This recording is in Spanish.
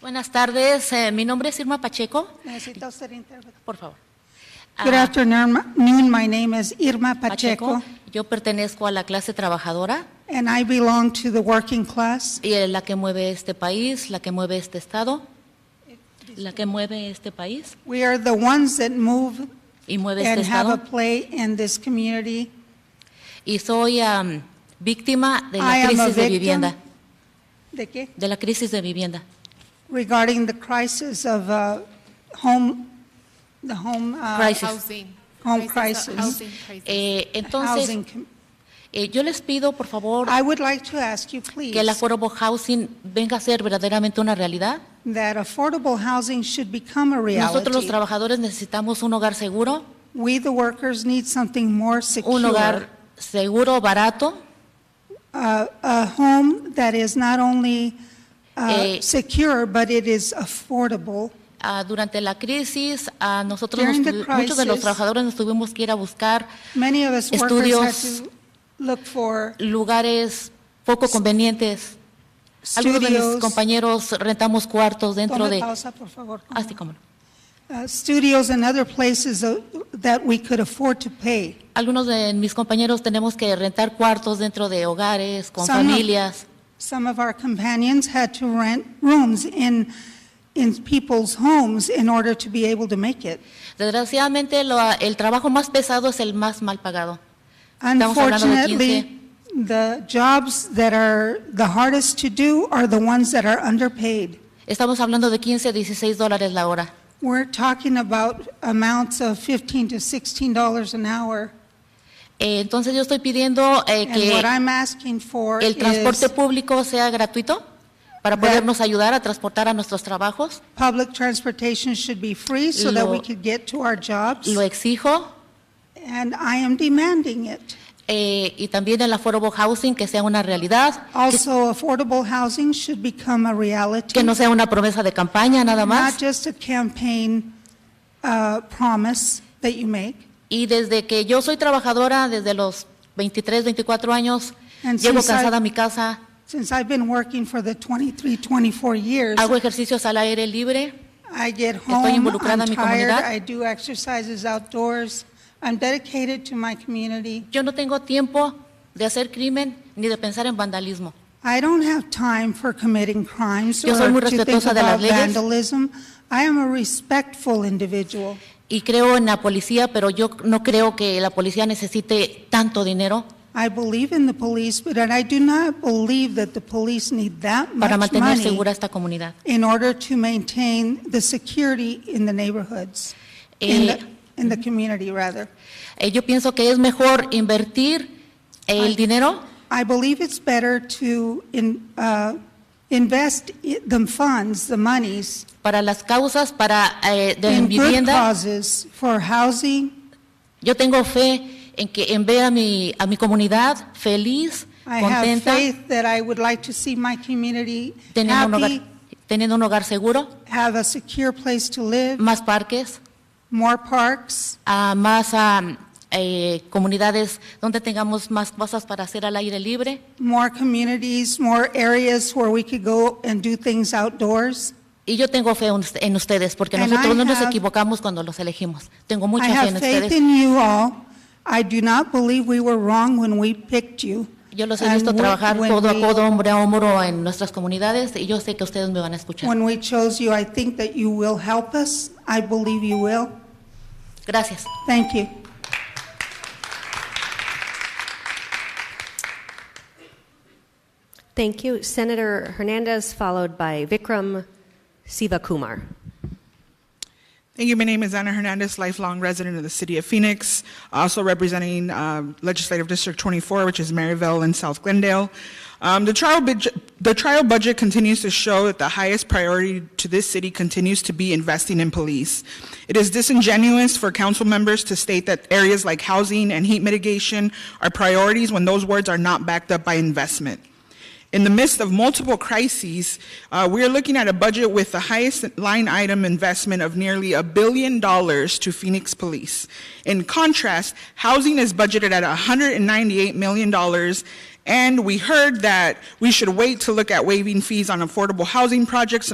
Buenas tardes, eh, mi nombre es Irma Pacheco, Necesita usted intérprete. por favor. Ah, Good afternoon. My name is Irma Pacheco, Yo pertenezco a la clase trabajadora and I belong to the working class. y es la que mueve este país, la que mueve este estado, la que mueve este país We are the ones that move y mueve este and have a estado. play in this community. Y soy am, víctima de I la am a crisis de victim. vivienda, ¿De qué? de la crisis de vivienda. Regarding the crisis of uh, home, the home, uh, Crisis. Housing. Home uh, crisis. Housing crisis. Eh, entonces, housing. com- eh, yo les pido, por favor, I would like to ask you, please, que el affordable housing venga a ser verdaderamente una realidad. that affordable housing should become a Nosotros los reality. trabajadores necesitamos un hogar seguro, We, the workers, need something more secure. un hogar seguro, barato, a a home that is not only uh, Eh, secure, but it is affordable. Ah, durante la crisis, a nosotros nos During the tuvi- muchos de los crisis- trabajadores nos tuvimos que ir a buscar Many of us workers had Estudios. to look for lugares poco convenientes. Algunos de mis studios. compañeros rentamos cuartos dentro Tome de... Ah, pausa, por favor. Así como no. Uh, Studios and other places uh, that we could afford to pay. Algunos de mis compañeros tenemos que rentar cuartos dentro de hogares, con Some of- familias. Some of our companions had to rent rooms in, in people's homes in order to be able to make it. Desgraciadamente, lo- el trabajo más pesado es el más mal pagado. Estamos hablando de Unfortunately, the jobs that are the hardest to do are the ones that are underpaid. Estamos hablando de 15 a 16 dólares la hora. We're talking about amounts of 15 to 16 dollars an hour. Eh, entonces, yo estoy pidiendo eh, And what que I'm asking for el transporte is público sea gratuito para podernos ayudar a transportar a nuestros trabajos. public transportation should be free so that we Lo- could get to our jobs. Lo exijo. And I am demanding it. eh, y también el affordable housing que sea una realidad, Also, affordable housing should become a reality. que no sea una promesa de campaña nada Not más. just a campaign uh, promise that you make. Y desde que yo soy trabajadora, desde los 23, 24 años, And llego since I- cansada a mi casa, Since I've been working for the 23, 24 years, hago ejercicios al aire libre, I get home, involucrada en I'm mi tired, comunidad. I do exercises outdoors, I'm dedicated to my community. yo no tengo tiempo de hacer crimen ni de pensar en vandalismo. I don't have time for committing crimes Yo soy or muy to think respetuosa de las about leyes. vandalism. I am a respectful individual. Y creo en la policía, pero yo no creo que la policía necesite tanto dinero I believe in the police, but I do not believe that the police need that para much mantener money segura esta comunidad. in order to maintain the security in the neighborhoods, in Eh, the, in the community, rather. eh, yo pienso que es mejor invertir el dinero I believe it's better to in, uh, invest i- the funds, the monies, para las causas, para eh, de in good vivienda. causes for housing. Yo tengo fe en que en ver a mi, a mi comunidad feliz, I have contenta, faith that I would like to see my community teniendo un, hogar, happy, teniendo un hogar seguro, have a secure place to live, más parques, more parks, a más am, eh, comunidades donde tengamos más cosas para hacer al aire libre. more communities, more areas where we could go and do things outdoors. Y yo tengo fe en us- en ustedes, porque And nosotros I no nos have- equivocamos cuando los elegimos. Tengo I mucha fe en have faith ustedes. in you all. I do not believe we were wrong when we picked you. Yo los he and visto when- trabajar when codo a we- codo, hombro a hombro en nuestras comunidades y yo sé que ustedes me van a escuchar. When we chose you, I think that you will help us. I believe you will. Gracias. Thank you. Thank you. Senator Hernandez, followed by Vikram Sivakumar. Thank you. My name is Ana Hernandez, lifelong resident of the city of Phoenix, also representing uh, Legislative District 24, which is Maryville and South Glendale. Um, the, trial budget, the trial budget continues to show that the highest priority to this city continues to be investing in police. It is disingenuous for council members to state that areas like housing and heat mitigation are priorities when those words are not backed up by investment. In the midst of multiple crises, uh, we are looking at a budget with the highest line item investment of nearly a billion dollars to Phoenix Police. In contrast, housing is budgeted at $198 million, and we heard that we should wait to look at waiving fees on affordable housing projects